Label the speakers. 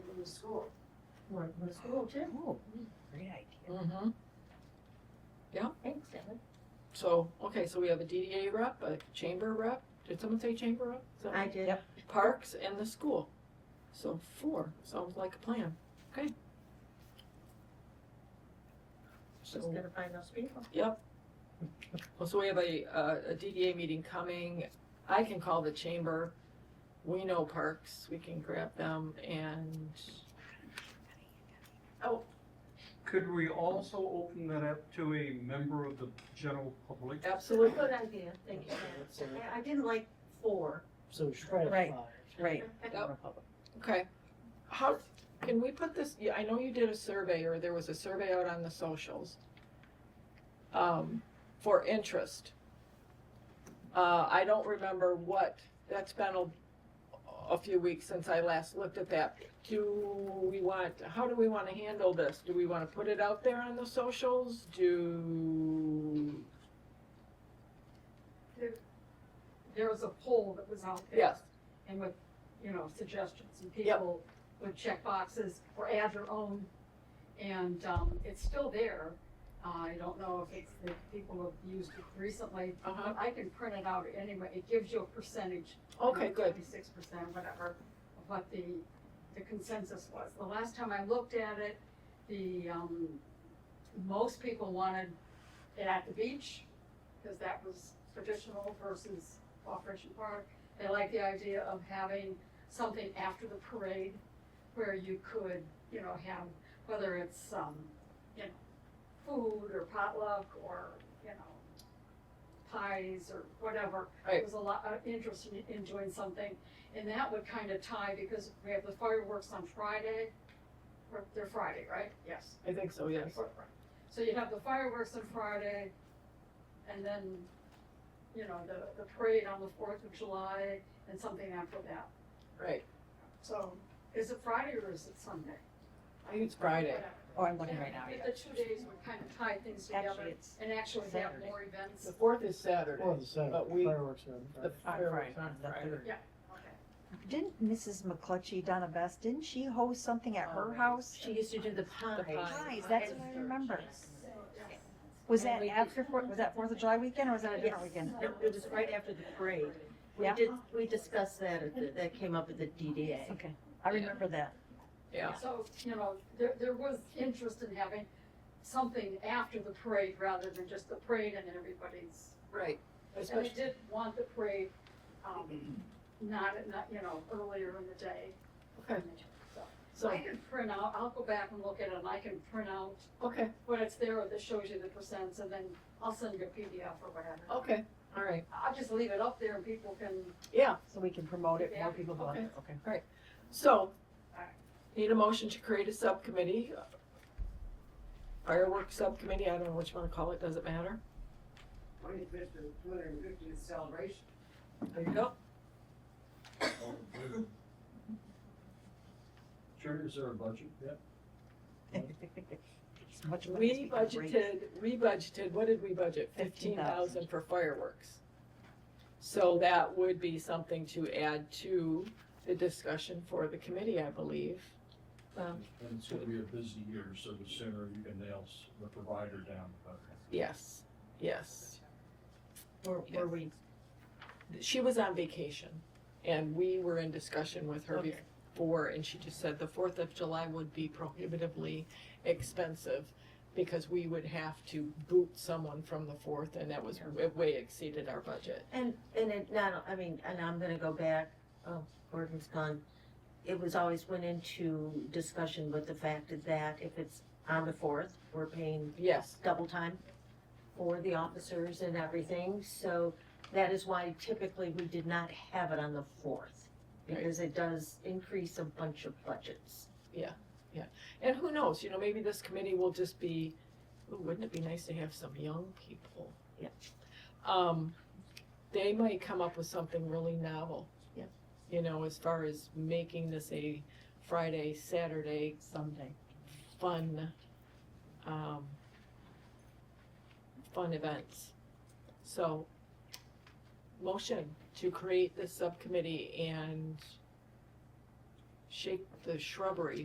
Speaker 1: the school.
Speaker 2: Work with school too.
Speaker 3: Oh, great idea.
Speaker 1: Mm-hmm.
Speaker 2: Thanks, Evan.
Speaker 1: So, okay, so we have a DDA rep, a chamber rep, did someone say chamber rep? So,
Speaker 2: I did.
Speaker 3: Yep.
Speaker 1: Parks and the school. So four, sounds like a plan.
Speaker 2: Just
Speaker 1: So,
Speaker 2: gotta find those people.
Speaker 1: well, so we have a, uh, a DDA meeting coming. I can call the chamber. We know parks, we can grab them and,
Speaker 4: Could we also open that up to a member of the general public?
Speaker 1: absolutely.
Speaker 2: Good idea, thank you, Evan. I- I didn't like four.
Speaker 5: So it's right at
Speaker 3: Right.
Speaker 5: five.
Speaker 3: Right.
Speaker 1: Yep.
Speaker 3: Republic.
Speaker 1: Okay. How, can we put this, yeah, I know you did a survey, or there was a survey out on the socials, um, for interest. Uh, I don't remember what, that's been a, a few weeks since I last looked at that. Do we want, how do we wanna handle this? Do we wanna put it out there on the socials? Do,
Speaker 6: there was a poll that was out there.
Speaker 1: yes,
Speaker 6: And with, you know, suggestions, and
Speaker 1: Yep.
Speaker 6: people would check boxes or add their own. And, um, it's still there. Uh, I don't know if it's, if people have used it recently,
Speaker 1: uh-huh,
Speaker 6: but I can print it out anyway. It gives you a percentage.
Speaker 1: okay, good,
Speaker 6: Twenty-six percent, whatever, of what the, the consensus was. The last time I looked at it, the, um, most people wanted it at the beach, because that was traditional versus Operation Park. They liked the idea of having something after the parade where you could, you know, have, whether it's, um, you know, food or potluck or, you know, pies or whatever. There
Speaker 1: Right.
Speaker 6: was a lot of interest in, in doing something, and that would kind of tie, because we have the fireworks on Friday, or they're Friday, right? Yes.
Speaker 1: I think so, yes.
Speaker 6: So you have the fireworks on Friday, and then, you know, the, the parade on the Fourth of July, and something after that.
Speaker 1: Right,
Speaker 6: So, is it Friday or is it Sunday?
Speaker 1: I think it's Friday.
Speaker 6: Whatever.
Speaker 3: Oh, I'm looking right now,
Speaker 6: But
Speaker 3: yeah.
Speaker 6: The two days would kind of tie things
Speaker 3: Actually,
Speaker 6: together
Speaker 3: it's
Speaker 6: and actually have
Speaker 3: Saturday.
Speaker 6: more events.
Speaker 1: The fourth is Saturday.
Speaker 5: Well, the Saturday,
Speaker 1: But we-
Speaker 5: fireworks are on
Speaker 1: The
Speaker 5: Friday.
Speaker 3: on
Speaker 1: fireworks
Speaker 3: Friday,
Speaker 1: on
Speaker 3: the
Speaker 1: Friday.
Speaker 3: third.
Speaker 6: Okay.
Speaker 3: Didn't Mrs. McClutchy, Donna Best, didn't she host something at her house?
Speaker 2: She used to do the pie.
Speaker 1: The pie.
Speaker 3: Pies, that's what I remember. Was that after, Fourth- was that Fourth of July weekend or was that a different weekend?
Speaker 2: It it was right after the parade. We
Speaker 3: Yeah.
Speaker 2: did, we discussed that, at the- that came up at the DDA.
Speaker 3: Okay, I remember that.
Speaker 1: Yeah,
Speaker 6: So, you know, there, there was interest in having something after the parade rather than just the parade and everybody's
Speaker 1: right.
Speaker 6: And I
Speaker 1: Especially,
Speaker 6: did want the parade, um, not, at not, you know, earlier in the day.
Speaker 1: okay,
Speaker 6: So I
Speaker 1: so,
Speaker 6: can print out, I'll go back and look at it, and I can print out
Speaker 1: okay,
Speaker 6: when it's there, that shows you the percents, and then I'll send you a PDF or whatever.
Speaker 1: okay, all right,
Speaker 6: I'll just leave it up there and people can,
Speaker 1: yeah,
Speaker 3: So we can promote it, more
Speaker 6: Yeah,
Speaker 3: people go on
Speaker 1: okay.
Speaker 3: it, okay.
Speaker 1: so. Need a motion to create a subcommittee. uh, Fireworks subcommittee, I don't know what you wanna call it, doesn't matter.
Speaker 7: Twenty-fifth and two hundred and fiftieth celebration.
Speaker 1: There you go.
Speaker 4: Sure, is there a budget yet?
Speaker 3: It's much money
Speaker 1: We
Speaker 3: to be raised.
Speaker 1: budgeted, we budgeted, what did we budget? Fifteen thousand for fireworks. So that would be something to add to the discussion for the committee, I believe. Um,
Speaker 4: And it's gonna be a busy year, so the sooner you can nail s- the provider down, the better.
Speaker 1: Yes, yes.
Speaker 2: Were, were we
Speaker 1: she was on vacation and we were in discussion with her
Speaker 2: Okay.
Speaker 1: before and she just said the fourth of july would be prohibitively expensive because we would have to boot someone from the fourth and that was it way exceeded our budget
Speaker 2: And, and it not, I mean, and I'm gonna go back, oh, Gordon's gone. It was always went into discussion with the fact that if it's on the fourth, we're paying
Speaker 1: yes
Speaker 2: double time for the officers and everything, so that is why typically we did not have it on the fourth. Because it does increase a bunch of budgets.
Speaker 1: and who knows you know maybe this committee will just be ooh, wouldn't it be nice to have some young people
Speaker 2: Yeah.
Speaker 1: um they might come up with something really novel
Speaker 2: Yeah.
Speaker 1: you know as far as making this a friday saturday
Speaker 3: Someday.
Speaker 1: fun, um, fun events. So, motion to create this subcommittee and shake the shrubbery